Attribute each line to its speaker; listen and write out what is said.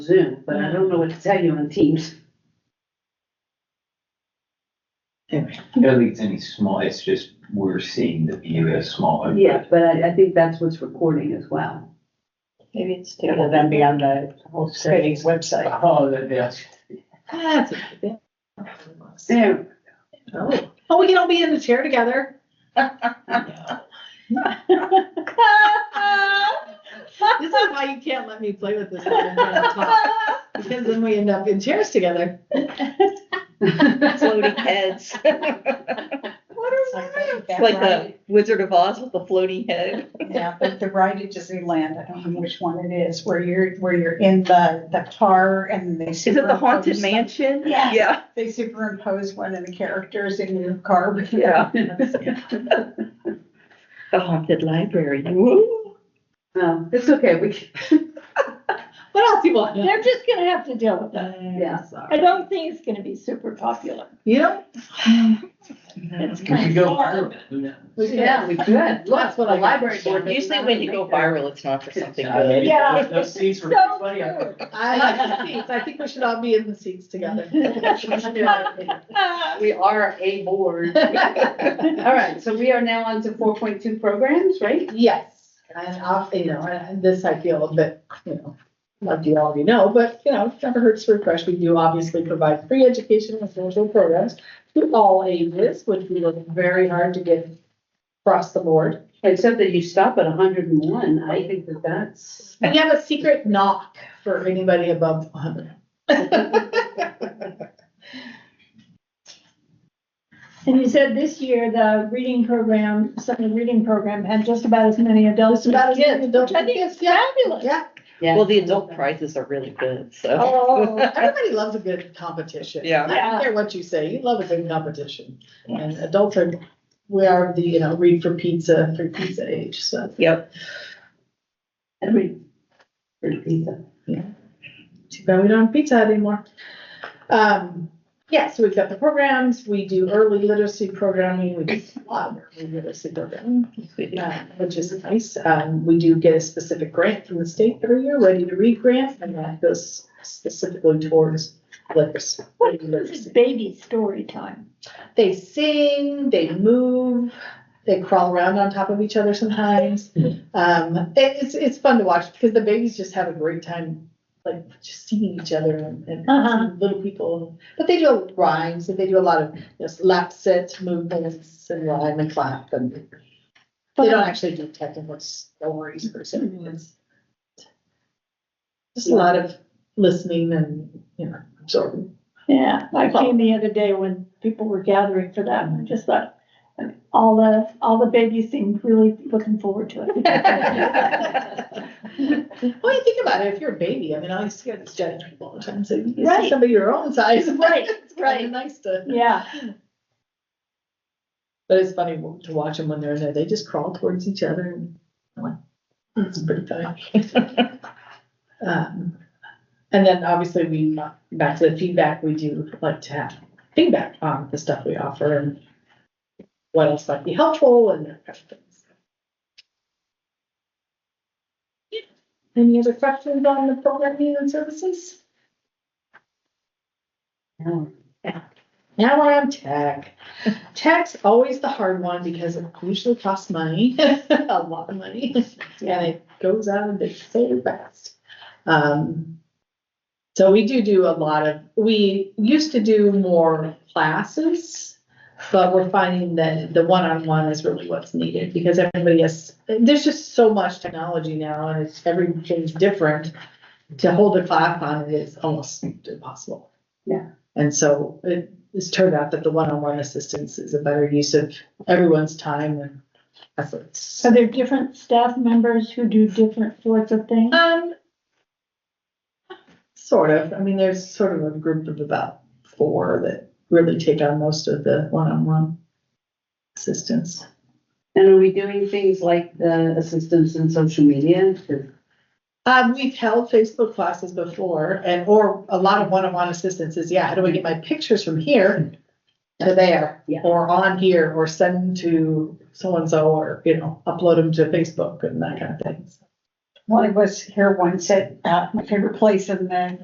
Speaker 1: Zoom, but I don't know what to tell you on Teams.
Speaker 2: I think it's any small, it's just, we're seeing the view as smaller.
Speaker 1: Yeah, but I, I think that's what's recording as well.
Speaker 3: Maybe it's
Speaker 4: It will then be on the whole city's website.
Speaker 2: Oh, that, that's.
Speaker 1: There,
Speaker 3: Oh, we can all be in the chair together. This is why you can't let me play with this. when I'm trying to talk, Because then we end up in chairs together.
Speaker 5: floating heads.
Speaker 3: What
Speaker 4: It's
Speaker 5: It's like the Wizard of Oz with the floating head.
Speaker 4: Yeah, but the ride at Disneyland, I don't know which one it is, where you're, where you're in the, the car and they.
Speaker 5: Is it the haunted
Speaker 4: superimpose-
Speaker 5: mansion?
Speaker 4: Yes.
Speaker 5: Yeah,
Speaker 4: They superimpose one of the characters in your car.
Speaker 5: yeah. The haunted library. Woo.
Speaker 1: no, it's okay, we, can-
Speaker 3: What else you want?
Speaker 6: They're just gonna have to deal with that.
Speaker 3: Yeah.
Speaker 6: I don't think it's gonna be super popular.
Speaker 3: You know,
Speaker 2: We could go viral, who knows?
Speaker 3: we could-
Speaker 1: yeah, we could. Look,
Speaker 3: That's what I
Speaker 1: the
Speaker 3: got.
Speaker 1: library board. does
Speaker 5: Usually
Speaker 1: not
Speaker 5: when you go
Speaker 1: make that.
Speaker 5: viral, it's not for something
Speaker 2: Uh, maybe
Speaker 5: good.
Speaker 6: Yeah,
Speaker 2: those- Those seats were
Speaker 6: So
Speaker 2: funny. I-
Speaker 6: true.
Speaker 3: I like the seats. I think we should all be in the seats together.
Speaker 1: We are a board. All right, so we are now on to four point two programs, right?
Speaker 3: Yes, and I'll, you know, and this I feel a bit, you know, like you already know, but, you know, it never hurts to refresh. We do obviously provide free education and social programs to all ages, which we work very hard to get across the board.
Speaker 1: Except that you stop at hundred and one, I think that that's.
Speaker 3: We have a secret knock for anybody above one hundred.
Speaker 6: And you said this year, the reading program, Sunday reading program had just about as many adults.
Speaker 3: Just about as many adults.
Speaker 6: I think it's fabulous.
Speaker 3: Yeah,
Speaker 1: Yeah.
Speaker 5: Well, the adult prizes are really good, so.
Speaker 6: Oh,
Speaker 3: everybody loves a good competition.
Speaker 5: Yeah.
Speaker 3: I don't care what you say, you love a good competition. And adults are, we are the, you know, read for pizza, for pizza age, so.
Speaker 5: Yep.
Speaker 1: Every, for pizza.
Speaker 3: Too bad we don't have pizza Hut anymore. Um, yeah, so we've got the programs, we do early literacy programming, we do a lot of early literacy programming, uh, which is nice. Um, we do get a specific grant from the state every year, Ready to Read grant, and that goes specifically towards literacy.
Speaker 6: what is this baby story time?
Speaker 3: They sing, they move, they crawl around on top of each other sometimes. Um, it- it's, it's fun to watch because the babies just have a great time, like just seeing each other and, and
Speaker 6: Uh-huh.
Speaker 3: seeing little people. But they do rhymes and they do a lot of you know, lap sets, movements, and rhyme and clap. And they don't actually do technical stories per se.
Speaker 6: Mm-hmm.
Speaker 3: It's just a lot of listening and you know absorbing.
Speaker 6: Yeah, I came the other day when people were gathering for that, and I just thought, all the, all the babies seemed really looking forward to it.
Speaker 3: Well, you think about it, if you're a baby, I mean, I used to get this giant people all the time, so you see
Speaker 6: Right.
Speaker 3: somebody your own size.
Speaker 6: Right,
Speaker 3: It's kind
Speaker 6: right.
Speaker 3: of nice to,
Speaker 6: Yeah,
Speaker 3: but it's funny to watch them when they're in there, they just crawl towards each other and I'm like, it's pretty funny. Um, And then obviously we, back to the feedback, we do like to have feedback on the stuff we offer and what else might be helpful and that kind of things. Any other questions on the programming and services? Now we're on tech. Tech's always the hard one because it usually costs money, a lot of money, and it goes out of the so fast. Um, so we do do a lot of, we used to do more classes, but we're finding that the one-on-one is really what's needed because everybody has, there's just so much technology now and it's everything's different. To hold a class on it is almost impossible.
Speaker 1: Yeah.
Speaker 3: And so it, it's turned out that the one-on-one assistance is a better use of everyone's time and efforts.
Speaker 6: are there different staff members who do different sorts of things?
Speaker 3: Um, sort of. I mean, there's sort of a group of about four that really take on most of the one-on-one assistance.
Speaker 1: And are we doing things like the assistance in social media?
Speaker 3: Um, we've held Facebook classes before and, or a lot of one-on-one assistance is, yeah, how do I get my pictures from here to there?
Speaker 1: Yeah.
Speaker 3: Or on here or send them to so-and-so or, you know, upload them to Facebook and that kind of thing.
Speaker 4: one of us here once said, uh, my favorite place in the